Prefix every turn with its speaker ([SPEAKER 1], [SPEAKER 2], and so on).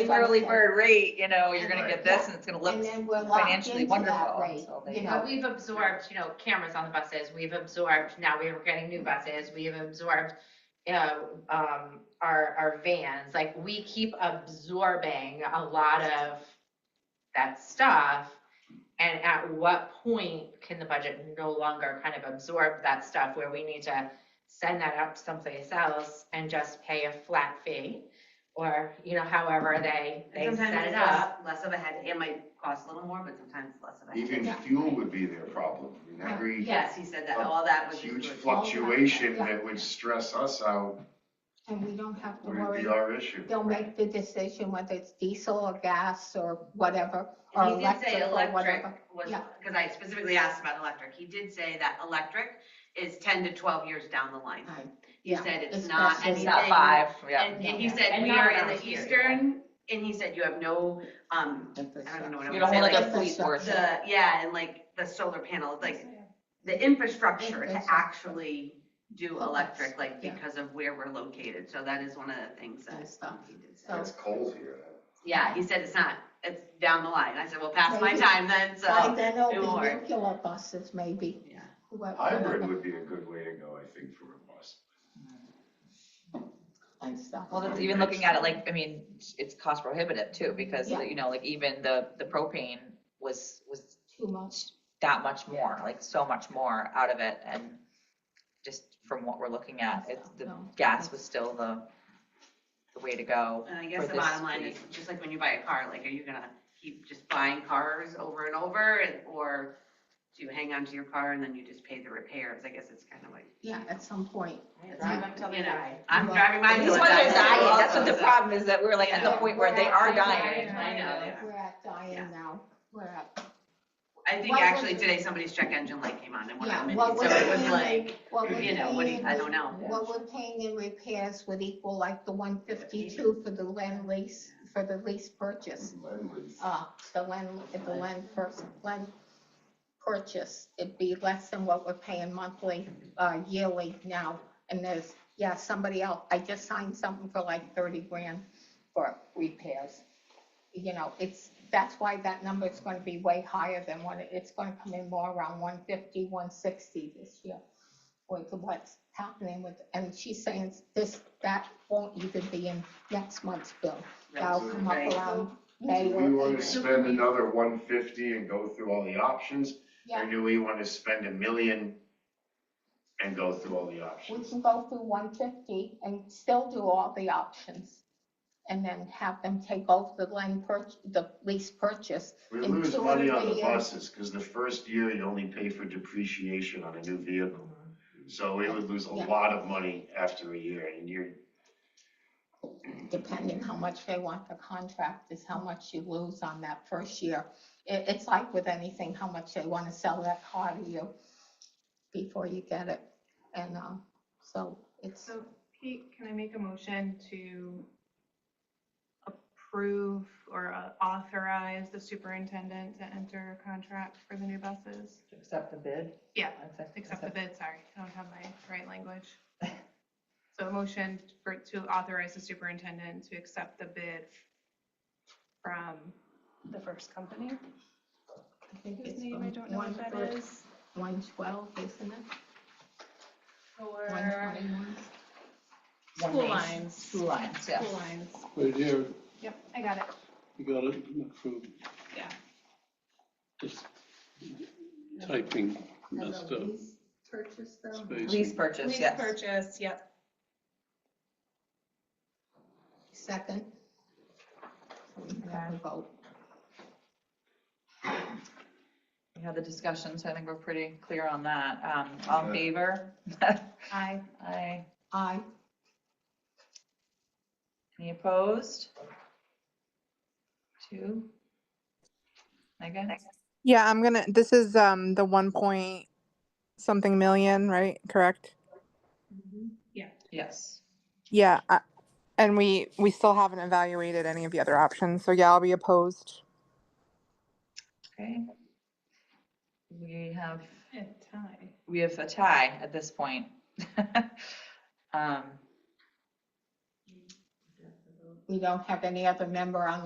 [SPEAKER 1] early
[SPEAKER 2] said.
[SPEAKER 1] bird rate, you know, you're gonna get this and it's gonna
[SPEAKER 2] And
[SPEAKER 1] look
[SPEAKER 2] then we're locked
[SPEAKER 1] financially
[SPEAKER 2] into that
[SPEAKER 1] wonderful.
[SPEAKER 2] rate,
[SPEAKER 1] So they-
[SPEAKER 2] you
[SPEAKER 3] But
[SPEAKER 2] know,
[SPEAKER 3] we've absorbed, you know, cameras on the buses, we've absorbed, now we're getting new buses, we have absorbed, you know, um, our, our vans, like, we keep absorbing a lot of that stuff. And at what point can the budget no longer kind of absorb that stuff where we need to send that up someplace else and just pay a flat fee? Or, you know, however they, they set
[SPEAKER 4] Sometimes
[SPEAKER 3] it
[SPEAKER 4] it's
[SPEAKER 3] up.
[SPEAKER 4] less, less of a head, it might cost a little more, but sometimes less of a head.
[SPEAKER 5] Even fuel would be their problem. Remember, he-
[SPEAKER 4] Yes, he said that, all that was.
[SPEAKER 5] huge
[SPEAKER 4] included.
[SPEAKER 5] fluctuation that would stress us out
[SPEAKER 2] and we don't have to
[SPEAKER 5] would
[SPEAKER 2] worry,
[SPEAKER 5] be our issue.
[SPEAKER 2] they'll make the decision whether it's diesel or gas or whatever, or
[SPEAKER 4] And He did say
[SPEAKER 2] electric or
[SPEAKER 4] electric
[SPEAKER 2] whatever.
[SPEAKER 4] was,
[SPEAKER 2] Yeah.
[SPEAKER 4] because I specifically asked about electric, he did say that electric is ten to twelve years down the line.
[SPEAKER 2] Right.
[SPEAKER 4] He
[SPEAKER 2] Yeah.
[SPEAKER 4] said it's
[SPEAKER 2] It's
[SPEAKER 4] not
[SPEAKER 2] not-
[SPEAKER 4] anything.
[SPEAKER 2] it's
[SPEAKER 1] It's not five, yeah.
[SPEAKER 4] And, and he
[SPEAKER 2] Yeah.
[SPEAKER 4] said,
[SPEAKER 3] And
[SPEAKER 4] we
[SPEAKER 3] not
[SPEAKER 4] are in
[SPEAKER 3] around
[SPEAKER 4] the
[SPEAKER 3] here either.
[SPEAKER 4] eastern, and he said, you have no, um, I don't know what I
[SPEAKER 1] You
[SPEAKER 4] would
[SPEAKER 1] don't
[SPEAKER 4] say,
[SPEAKER 1] have like
[SPEAKER 4] like,
[SPEAKER 1] a police force.
[SPEAKER 4] the, yeah, and like the solar panels, like the infrastructure to
[SPEAKER 2] Infrastructure.
[SPEAKER 4] actually do electric, like
[SPEAKER 2] Yeah.
[SPEAKER 4] because of where we're located. So that is one of the things that.
[SPEAKER 2] And stuff.
[SPEAKER 4] he did say.
[SPEAKER 2] So-
[SPEAKER 5] It's cold here.
[SPEAKER 4] Yeah, he said it's not, it's down the line. I said, well, past my
[SPEAKER 2] Maybe.
[SPEAKER 4] time then,
[SPEAKER 2] By
[SPEAKER 4] so.
[SPEAKER 2] then it'll
[SPEAKER 4] it
[SPEAKER 2] be
[SPEAKER 4] won't.
[SPEAKER 2] regular buses maybe.
[SPEAKER 4] Yeah.
[SPEAKER 2] whoever-
[SPEAKER 5] Hybrid would be a good way to go, I think, for a bus.
[SPEAKER 2] And stuff.
[SPEAKER 1] Well, that's even looking at it like, I mean, it's cost prohibitive too, because,
[SPEAKER 2] Yeah.
[SPEAKER 1] you know, like even the, the propane was, was
[SPEAKER 2] Too much.
[SPEAKER 1] that much more, like so much more out of it and just from what we're looking at, it's, the
[SPEAKER 2] No.
[SPEAKER 1] gas was still the, the way to go.
[SPEAKER 4] And I guess
[SPEAKER 1] For
[SPEAKER 4] the
[SPEAKER 1] this
[SPEAKER 4] bottom line is,
[SPEAKER 1] week.
[SPEAKER 4] just like when you buy a car, like, are you gonna keep just buying cars over and over? and- Or do you hang on to your car and then you just pay the repairs? I guess it's kind of like.
[SPEAKER 2] Yeah, at some point.
[SPEAKER 4] You know, I'm
[SPEAKER 2] Well,
[SPEAKER 4] driving mine.
[SPEAKER 2] These
[SPEAKER 4] till
[SPEAKER 2] ones
[SPEAKER 4] it
[SPEAKER 2] are
[SPEAKER 4] dies.
[SPEAKER 2] dying,
[SPEAKER 1] That's what the problem is, that we're like at the
[SPEAKER 4] Yeah.
[SPEAKER 1] point where they are dying.
[SPEAKER 3] Dying.
[SPEAKER 4] I know, yeah.
[SPEAKER 2] We're at
[SPEAKER 4] Yeah.
[SPEAKER 2] dying now. We're at,
[SPEAKER 4] I think
[SPEAKER 2] What was
[SPEAKER 4] actually
[SPEAKER 2] it?
[SPEAKER 4] today somebody's check engine light came on and went
[SPEAKER 2] yeah,
[SPEAKER 4] out midnight,
[SPEAKER 2] what
[SPEAKER 4] so
[SPEAKER 2] we're
[SPEAKER 4] it was
[SPEAKER 2] paying,
[SPEAKER 4] like,
[SPEAKER 2] what we're
[SPEAKER 4] you know, what do you,
[SPEAKER 2] paying,
[SPEAKER 4] I don't know.
[SPEAKER 2] what we're paying in repairs would equal like the one fifty-two for the land lease, for the lease purchase. Uh, the land, if the land first, land purchase, it'd be less than what we're paying monthly, uh, yearly now. And there's, yeah, somebody else, I just signed something for like thirty grand for repairs. You know, it's, that's why that number is gonna be way higher than what, it- it's gonna come in more around 150, 160 this year. With what's happening with, and she's saying this, that won't even be in next month's bill. That'll come up
[SPEAKER 4] Right.
[SPEAKER 2] around
[SPEAKER 5] Do
[SPEAKER 2] May
[SPEAKER 5] we
[SPEAKER 2] or
[SPEAKER 5] want to
[SPEAKER 2] April.
[SPEAKER 5] spend another one fifty and go through all the options? Or
[SPEAKER 2] Yeah,
[SPEAKER 5] do we want to spend a million and go through all the
[SPEAKER 2] we
[SPEAKER 5] options?
[SPEAKER 2] can go through one fifty and still do all the options. And then have them take over the land purch, the lease purchase.
[SPEAKER 5] We
[SPEAKER 2] in
[SPEAKER 5] lose
[SPEAKER 2] two or
[SPEAKER 5] money on
[SPEAKER 2] three
[SPEAKER 5] the
[SPEAKER 2] years.
[SPEAKER 5] buses because the first year you only pay for depreciation on a new vehicle. So we would lose a
[SPEAKER 2] Yeah.
[SPEAKER 5] lot of money after a year and you're,
[SPEAKER 2] depending how much they want the contract is how much you lose on that first year. It, it's like with anything, how much they want to sell that car to you before you get it. And, um, so it's,
[SPEAKER 6] So Pete, can I make a motion to approve or uh, authorize the superintendent to enter a contract for the new buses?
[SPEAKER 1] Accept the bid?
[SPEAKER 6] Yeah, Except the bid, sorry, I don't have my right language. So a motion for, to authorize the superintendent to accept the bid from,
[SPEAKER 7] The first company,
[SPEAKER 2] I think
[SPEAKER 6] his
[SPEAKER 2] it's
[SPEAKER 6] name, I don't know
[SPEAKER 2] one
[SPEAKER 6] what that
[SPEAKER 2] for
[SPEAKER 6] is,
[SPEAKER 2] one twelve, isn't it? One
[SPEAKER 7] for
[SPEAKER 2] twenty-one.
[SPEAKER 7] school lines,
[SPEAKER 1] Two lines, yeah.
[SPEAKER 7] school lines.
[SPEAKER 8] Right here,
[SPEAKER 6] yep, I got it.
[SPEAKER 8] you got it approved.
[SPEAKER 6] Yeah.
[SPEAKER 8] Just typing messed up
[SPEAKER 2] Purchase though.
[SPEAKER 1] Lease
[SPEAKER 8] spacing.
[SPEAKER 1] purchase,
[SPEAKER 7] Lease
[SPEAKER 1] yes.
[SPEAKER 7] purchase, yep.
[SPEAKER 2] Second. Have a vote.
[SPEAKER 1] We had the discussion, so I think we're pretty clear on that. Um, all in
[SPEAKER 5] Okay.
[SPEAKER 1] favor?
[SPEAKER 6] I,
[SPEAKER 1] Aye.
[SPEAKER 2] Aye.
[SPEAKER 1] Any opposed? Two? Megan?
[SPEAKER 9] Yeah, I'm gonna, this is, um, the one point something million, right? Correct?
[SPEAKER 1] Yes.
[SPEAKER 9] Yeah, I, and we, we still haven't evaluated any of the other options, so yeah, I'll be opposed.
[SPEAKER 1] Okay. We have,
[SPEAKER 6] a tie.
[SPEAKER 1] we have a tie at this point. Um,
[SPEAKER 2] We don't have any other member on